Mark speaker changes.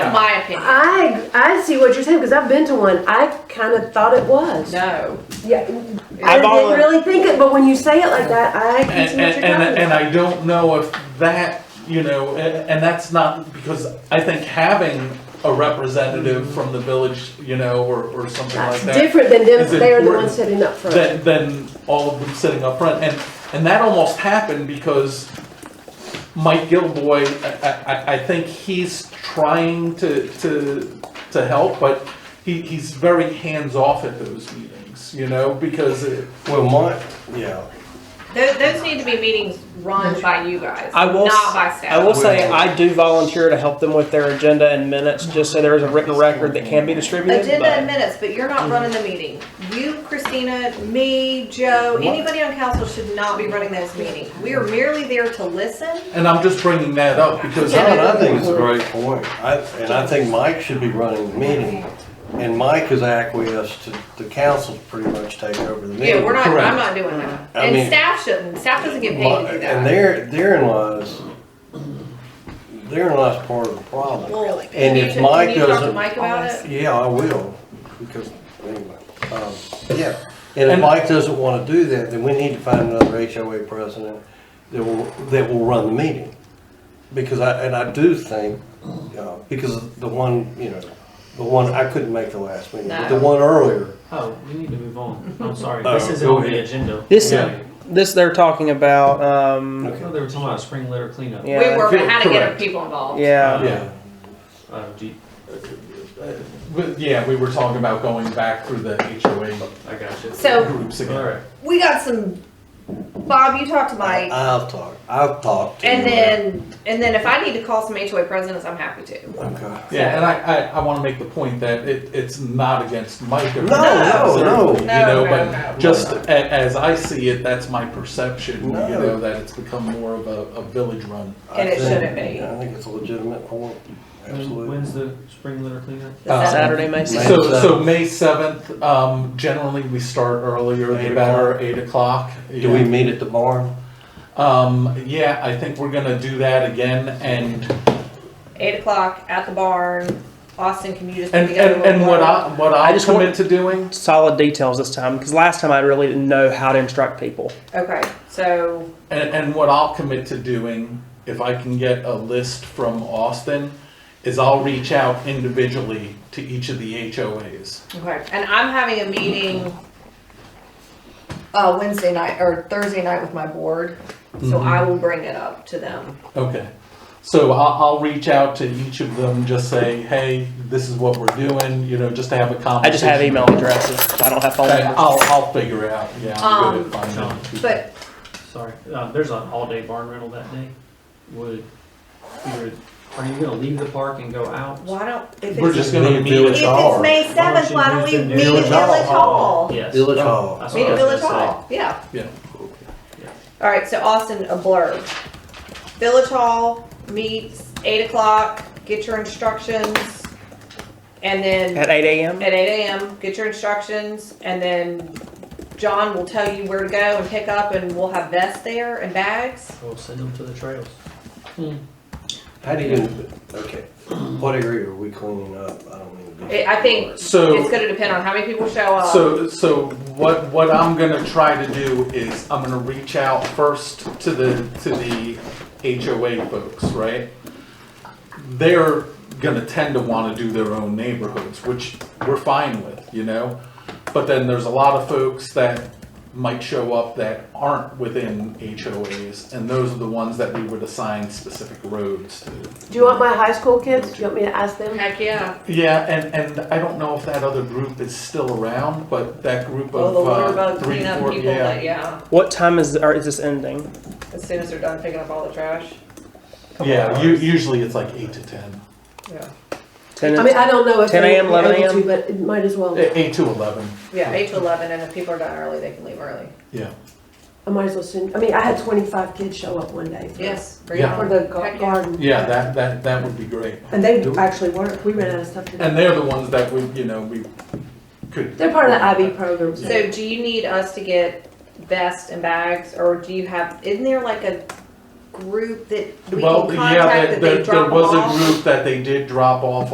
Speaker 1: That's my opinion.
Speaker 2: I I see what you're saying because I've been to one. I kind of thought it was.
Speaker 1: No.
Speaker 2: Yeah, I
Speaker 3: I've
Speaker 2: didn't
Speaker 3: always-
Speaker 2: really think it, but when you say it like that, I can see
Speaker 3: And,
Speaker 2: what you're
Speaker 3: and,
Speaker 2: talking
Speaker 3: and, and
Speaker 2: about.
Speaker 3: I don't know if that, you know, a- and that's not, because I think having a representative from the village, you know, or, or something like
Speaker 2: That's
Speaker 3: that,
Speaker 2: different than
Speaker 3: It's
Speaker 2: them. They are the
Speaker 3: important
Speaker 2: ones sitting up front.
Speaker 3: than, than all of them sitting up front. And, and that almost happened because Mike Gilboy, I, I, I think he's trying to, to, to help, but he, he's very hands-off at those meetings, you know, because it,
Speaker 4: Well, my, yeah.
Speaker 1: Those, those need to be meetings run by you guys,
Speaker 5: I will.
Speaker 1: not by staff.
Speaker 5: I will say I do volunteer to help them with their agenda and minutes, just so there is a written record that can be distributed.
Speaker 1: Agenda
Speaker 5: but-
Speaker 1: and minutes, but you're not running the meeting. You, Christina, me, Joe, anybody on council should not be running those meetings. We are merely there to listen.
Speaker 3: and I'm just bringing that up because.
Speaker 4: John, I think it's a great point. I, and I think Mike should be running the meeting. And Mike has acquiesced to the council to pretty much take over the meeting.
Speaker 1: Yeah, we're not, I'm
Speaker 3: Correct.
Speaker 1: not doing that.
Speaker 4: I
Speaker 1: And
Speaker 4: mean-
Speaker 1: staff shouldn't, staff doesn't get paid to do
Speaker 4: And
Speaker 1: that.
Speaker 4: there, therein lies, therein lies part of the problem.
Speaker 1: Well,
Speaker 4: And
Speaker 1: can you-
Speaker 4: if
Speaker 1: Can
Speaker 4: Mike
Speaker 1: you talk to
Speaker 4: doesn't-
Speaker 1: Mike about it?
Speaker 4: Yeah, I will, because, anyway, um, yeah. And if
Speaker 3: And-
Speaker 4: Mike doesn't wanna do that, then we need to find another HOA president that will, that will run the meeting. Because I, and I do think, uh, because the one, you know, the one, I couldn't make the last meeting, but the
Speaker 1: No.
Speaker 4: one earlier,
Speaker 6: Oh, we need to move on. I'm sorry.
Speaker 4: Oh,
Speaker 6: This isn't
Speaker 4: go
Speaker 6: on the
Speaker 4: ahead.
Speaker 6: agenda.
Speaker 5: This-
Speaker 6: Yeah.
Speaker 5: This they're talking about. Um,
Speaker 6: I thought they were talking about spring litter cleanup.
Speaker 1: We
Speaker 5: yeah,
Speaker 1: were working how to get
Speaker 3: Correct.
Speaker 1: people involved.
Speaker 5: yeah.
Speaker 3: Yeah.
Speaker 6: Uh, do you-
Speaker 3: But yeah, we were talking about going back through the HOA
Speaker 6: I got you.
Speaker 1: So-
Speaker 3: groups
Speaker 6: All
Speaker 3: again.
Speaker 6: right.
Speaker 1: We got some, Bob, you talked to Mike.
Speaker 4: I'll talk, I'll talk to you.
Speaker 1: And then, and then if I need to call some HOA presidents, I'm happy to.
Speaker 5: Uh,
Speaker 4: Okay.
Speaker 3: Yeah, and I, I, I wanna make the point that it, it's not against Mike. or-
Speaker 4: No, no, no.
Speaker 3: You
Speaker 1: No,
Speaker 3: know,
Speaker 1: no,
Speaker 3: but
Speaker 1: no.
Speaker 3: just a, as I see it, that's my perception, you
Speaker 4: No.
Speaker 3: know, that it's become more of a, a village run.
Speaker 4: I
Speaker 1: And it
Speaker 4: think-
Speaker 1: shouldn't be.
Speaker 4: I think it's a legitimate point,
Speaker 6: When-
Speaker 4: absolutely.
Speaker 6: When's the spring litter cleanup?
Speaker 1: Does that-
Speaker 5: Saturday, May
Speaker 4: May
Speaker 3: So,
Speaker 5: 6th.
Speaker 3: so
Speaker 4: 7th.
Speaker 3: May seventh, um, generally we start earlier,
Speaker 4: Eight
Speaker 3: the better, eight o'clock.
Speaker 4: Do we meet at the barn?
Speaker 3: Um, yeah, I think we're gonna do that again and
Speaker 1: Eight o'clock at the barn. Austin, can you just put
Speaker 3: And,
Speaker 1: together?
Speaker 3: and,
Speaker 1: a
Speaker 3: and what
Speaker 1: blurb?
Speaker 3: I, what
Speaker 5: I
Speaker 3: I'll
Speaker 5: just want-
Speaker 3: commit to doing,
Speaker 5: Solid details this time, because last time I really didn't know how to instruct people.
Speaker 1: Okay, so
Speaker 3: and, and what I'll commit to doing, if I can get a list from Austin, is I'll reach out individually to each of the HOAs.
Speaker 1: okay, and I'm having a meeting uh, Wednesday night or Thursday night with my board, so
Speaker 3: Mhm.
Speaker 1: I will bring it up to them.
Speaker 3: Okay. So I'll, I'll reach out to each of them, just say, hey, this is what we're doing, you know, just to have a conversation.
Speaker 5: I just have email addresses. I don't have phone
Speaker 3: Okay,
Speaker 5: numbers.
Speaker 3: I'll, I'll figure it out, yeah, I'm good at
Speaker 6: Um,
Speaker 3: finding people.
Speaker 1: But
Speaker 6: Sorry. Uh, there's an all-day barn rental that day. Would you are you gonna leave the park and go out?
Speaker 1: why don't if
Speaker 3: We're
Speaker 1: it's,
Speaker 3: just gonna
Speaker 4: Meet at
Speaker 3: meet
Speaker 1: if
Speaker 4: Village
Speaker 3: at-
Speaker 4: Hall.
Speaker 1: it's May
Speaker 6: Why
Speaker 1: seventh, why don't
Speaker 6: you
Speaker 1: we
Speaker 6: use the
Speaker 1: meet at
Speaker 4: Village Hall?
Speaker 1: Village Hall?
Speaker 6: Yes.
Speaker 4: Village
Speaker 6: That's
Speaker 4: Hall.
Speaker 6: what I
Speaker 1: Meet at
Speaker 6: was
Speaker 1: Village
Speaker 6: gonna say.
Speaker 1: Hall. Yeah.
Speaker 3: Yeah.
Speaker 1: All right. So Austin, a blurb. Village Hall meets eight o'clock. Get your instructions, and then
Speaker 5: At 8 a.m.
Speaker 1: at 8 a.m. Get your instructions, and then John will tell you where to go and pick up, and we'll have vests there and bags.
Speaker 6: We'll send them to the trails.
Speaker 4: How do you, okay, what area are we cleaning up? I don't mean to be.
Speaker 1: I I think
Speaker 3: So.
Speaker 1: it's going to depend on how many people show up.
Speaker 3: So, so what, what I'm gonna try to do is, I'm gonna reach out first to the, to the HOA folks, right? They're gonna tend to wanna do their own neighborhoods, which we're fine with, you know? But then there's a lot of folks that might show up that aren't within HOAs, and those are the ones that we would assign specific roads to.
Speaker 2: Do you want my high school kids? Do you want me to ask them?
Speaker 1: heck yeah,
Speaker 3: Yeah, and, and I don't know if that other group is still around, but that group of,
Speaker 1: all Oh, the water
Speaker 3: uh,
Speaker 1: bug
Speaker 3: three,
Speaker 1: cleanup
Speaker 3: four,
Speaker 1: people. That, yeah,
Speaker 5: What time is or is this ending?
Speaker 1: as soon as they're done picking up all the trash. Couple
Speaker 3: Yeah,
Speaker 1: hours.
Speaker 3: u- usually it's like eight to ten.
Speaker 1: yeah,
Speaker 5: 10
Speaker 2: I mean, I don't know if
Speaker 5: 10
Speaker 2: they
Speaker 5: a.m.,
Speaker 2: would be
Speaker 5: 11
Speaker 2: able to,
Speaker 5: a.m.?
Speaker 2: but it might as well.
Speaker 3: Eh, Eight to eleven.
Speaker 1: yeah, eight to eleven, and if people are done early, they can leave early.
Speaker 3: Yeah.
Speaker 2: I might as well send. I mean, I had 25 kids show up one day. For,
Speaker 1: Yes, bring
Speaker 3: Yeah.
Speaker 2: For
Speaker 1: it
Speaker 2: the
Speaker 1: Heck
Speaker 2: gar-
Speaker 1: yeah.
Speaker 2: garden.
Speaker 3: Yeah, that, that, that would be great.
Speaker 2: And they actually work. We ran out of stuff to do.
Speaker 3: And they're the ones that we, you know, we could.
Speaker 2: They're part of the IB program.
Speaker 1: on.
Speaker 2: So.
Speaker 1: So, do you need us to get vests and bags, or do you have? Isn't there like a group that we
Speaker 3: Well,
Speaker 1: can
Speaker 3: yeah,
Speaker 1: contact
Speaker 3: there-
Speaker 1: that they
Speaker 3: there,
Speaker 1: drop
Speaker 3: there was
Speaker 1: off?
Speaker 3: a group that they did drop off